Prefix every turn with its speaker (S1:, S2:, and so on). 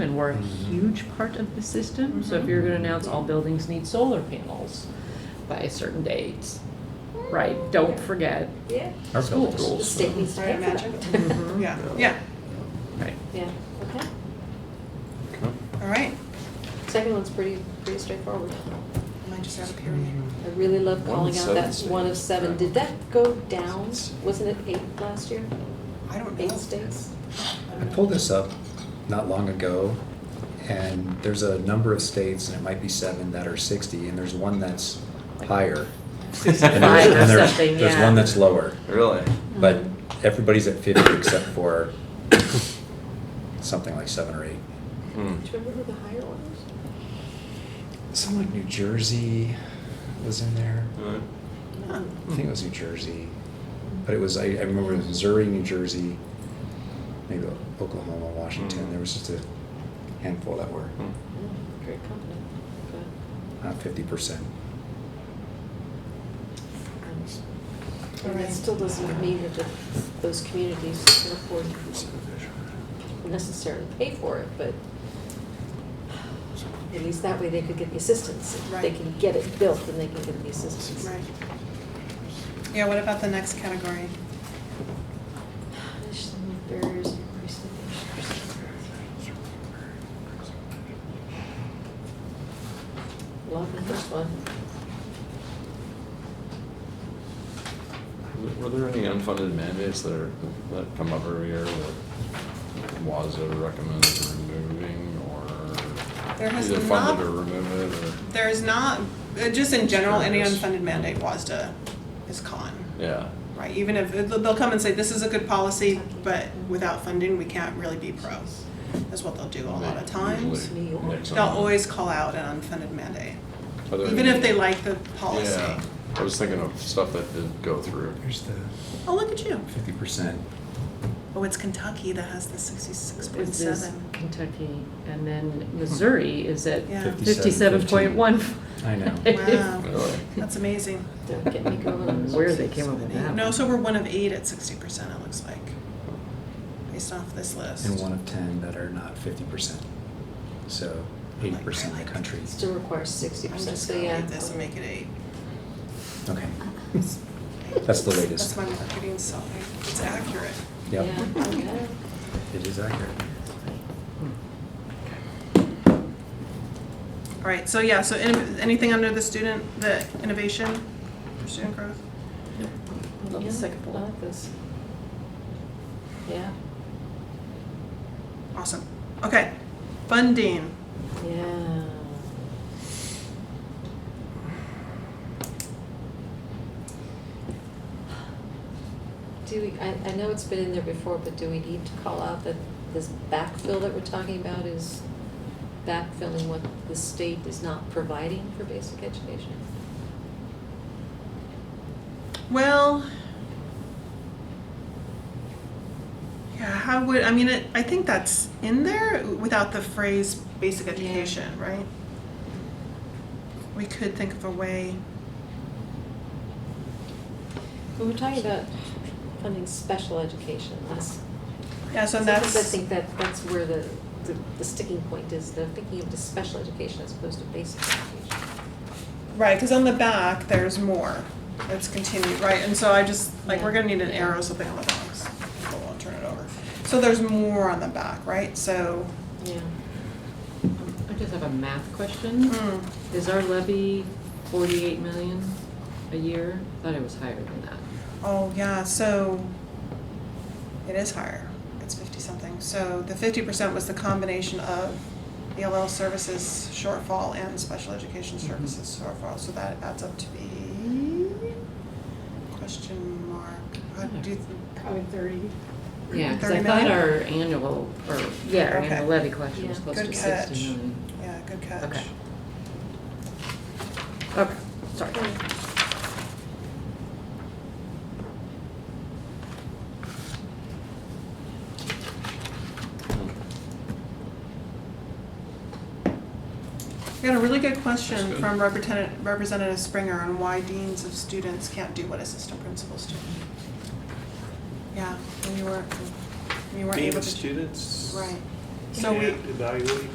S1: and we're a
S2: Mm.
S1: huge part of the system. So if you're gonna announce all buildings need solar panels by a certain date, right, don't forget
S3: Yeah.
S2: Our
S1: school
S2: buildings.
S3: The
S1: rules.
S3: state needs to pay
S4: I
S3: for
S4: imagine.
S3: that.
S1: Mm-hmm.
S4: Yeah, yeah,
S1: Right.
S3: Yeah, okay.
S4: all right.
S3: Second one's pretty, pretty straightforward.
S4: I might just have a period.
S3: I really love
S5: One
S3: calling
S5: of
S3: out that
S5: seven
S3: one of
S5: states.
S3: seven. Did that go down? Wasn't it eight last year?
S4: I don't know.
S3: Eight states?
S4: I
S2: I
S4: don't know.
S2: pulled this up not long ago, and there's a number of states, and it might be seven, that are 60, and there's one that's higher. And there's-
S1: Five or
S2: and there's-
S1: something,
S2: There's
S1: yeah. Mm-hmm.
S2: one that's lower,
S5: Really?
S2: but
S3: Mhm.
S2: everybody's at 50 except for something like seven or eight.
S5: Hmm.
S3: Do you remember who the higher one was?
S2: Some like New Jersey was in there.
S5: Alright.
S4: Huh.
S2: I think it was New Jersey, but it was, I, I remember it was Missouri, New Jersey, maybe Oklahoma, Washington. There was just a handful that were
S5: Hmm.
S3: Mm, Great company. um,
S2: not 50%.
S3: But-
S4: All
S3: And that
S4: right.
S3: still doesn't mean that the- those communities can afford necessarily pay for it, but at least that way they could get the assistance. If They
S4: Right.
S3: can get it built and they can get the assistance.
S4: Right. Yeah, what about the next category?
S3: Additional barriers and increased innovation. Love the first one.
S5: Hmm. Were there any unfunded mandates that are, that come up every year that WASA recommends removing or
S4: There has
S5: either
S4: not-
S5: fund it or remove it or,
S4: There is not, uh, just in general, any
S5: Sure is.
S4: unfunded mandate WASDA is con,
S5: yeah.
S4: right? Even if, they'll come and say, this is a good policy, but without funding, we can't really be pro, is what they'll do a lot of times.
S5: Usually
S3: New York.
S5: nix
S4: They'll
S5: on it.
S4: always call out an unfunded mandate,
S5: Are there
S4: even
S5: any-
S4: if they like the policy.
S5: Yeah, I was thinking of stuff that did go through.
S2: There's the
S4: Oh, look at you.
S2: 50%.
S4: Oh, it's Kentucky that has the sixty-six point
S1: This is
S4: seven.
S1: Kentucky, and then Missouri is at
S4: Yeah.
S1: fifty-seven point one.
S2: I know.
S4: Wow,
S5: Really?
S4: that's amazing.
S3: Don't get me going on those.
S1: Where they came up with that.
S4: No, so we're one of eight at sixty percent, it looks like, based off this list.
S2: And one of 10 that are not 50%. So 80% of the country.
S3: Still requires sixty
S4: I'm
S3: percent,
S4: just
S3: so
S4: gonna
S3: yeah.
S4: leave this and make it eight.
S2: Okay. That's the
S4: That's
S2: latest.
S4: my marketing selling. It's accurate.
S2: Yep.
S3: Yeah, yeah.
S2: It is accurate.
S4: All right, so yeah, so in- anything under the student, the innovation, for student growth?
S1: I love the
S3: Yeah,
S1: second
S3: I
S1: bullet.
S3: like this. Yeah,
S4: Awesome. Okay, funding.
S3: yeah. Do we, I, I know it's been in there before, but do we need to call out that this backfill that we're talking about is backfilling what the state is not providing for basic education?
S4: Well, yeah, how would, I mean, it, I think that's in there without the phrase basic
S3: Yeah.
S4: education, right? We could think of a way,
S3: When we're talking about funding special education, that's
S4: yeah, so
S3: Sometimes
S4: that's.
S3: I think that that's where the, the- the sticking point is, they're thinking of the special education as opposed to basic education.
S4: Right, because on the back, there's more. Let's continue, right, and so I just, like, we're gonna need an
S3: Yeah.
S4: arrow, something on the box. Hold on, turn it over. So there's more on the back, right, so,
S3: Yeah.
S1: Um, I just have a math question.
S4: mm,
S1: Is our levy forty-eight million a year? I Thought it was higher than that.
S4: oh, yeah, so it is higher. It's fifty-something. So the fifty percent was the combination of ELL services shortfall and special education
S1: Mhm.
S4: services shortfall, so that adds up to be question mark, Uh, do you th-
S6: Probably thirty.
S1: Yeah, because I
S4: 30
S1: thought
S4: million?
S1: our annual, or, yeah, our
S4: Okay.
S1: annual levy collection was
S3: Yeah.
S1: close
S4: Good
S1: to
S4: catch.
S1: sixty million.
S4: Yeah, good catch.
S1: Okay. Okay, sorry.
S4: We got a really good question
S5: That's good.
S4: from Representative, Representative Springer on why deans of students can't do what assistant principals do. Yeah, and you weren't, you weren't able to.
S5: students?
S4: Right, So we-
S6: And evaluate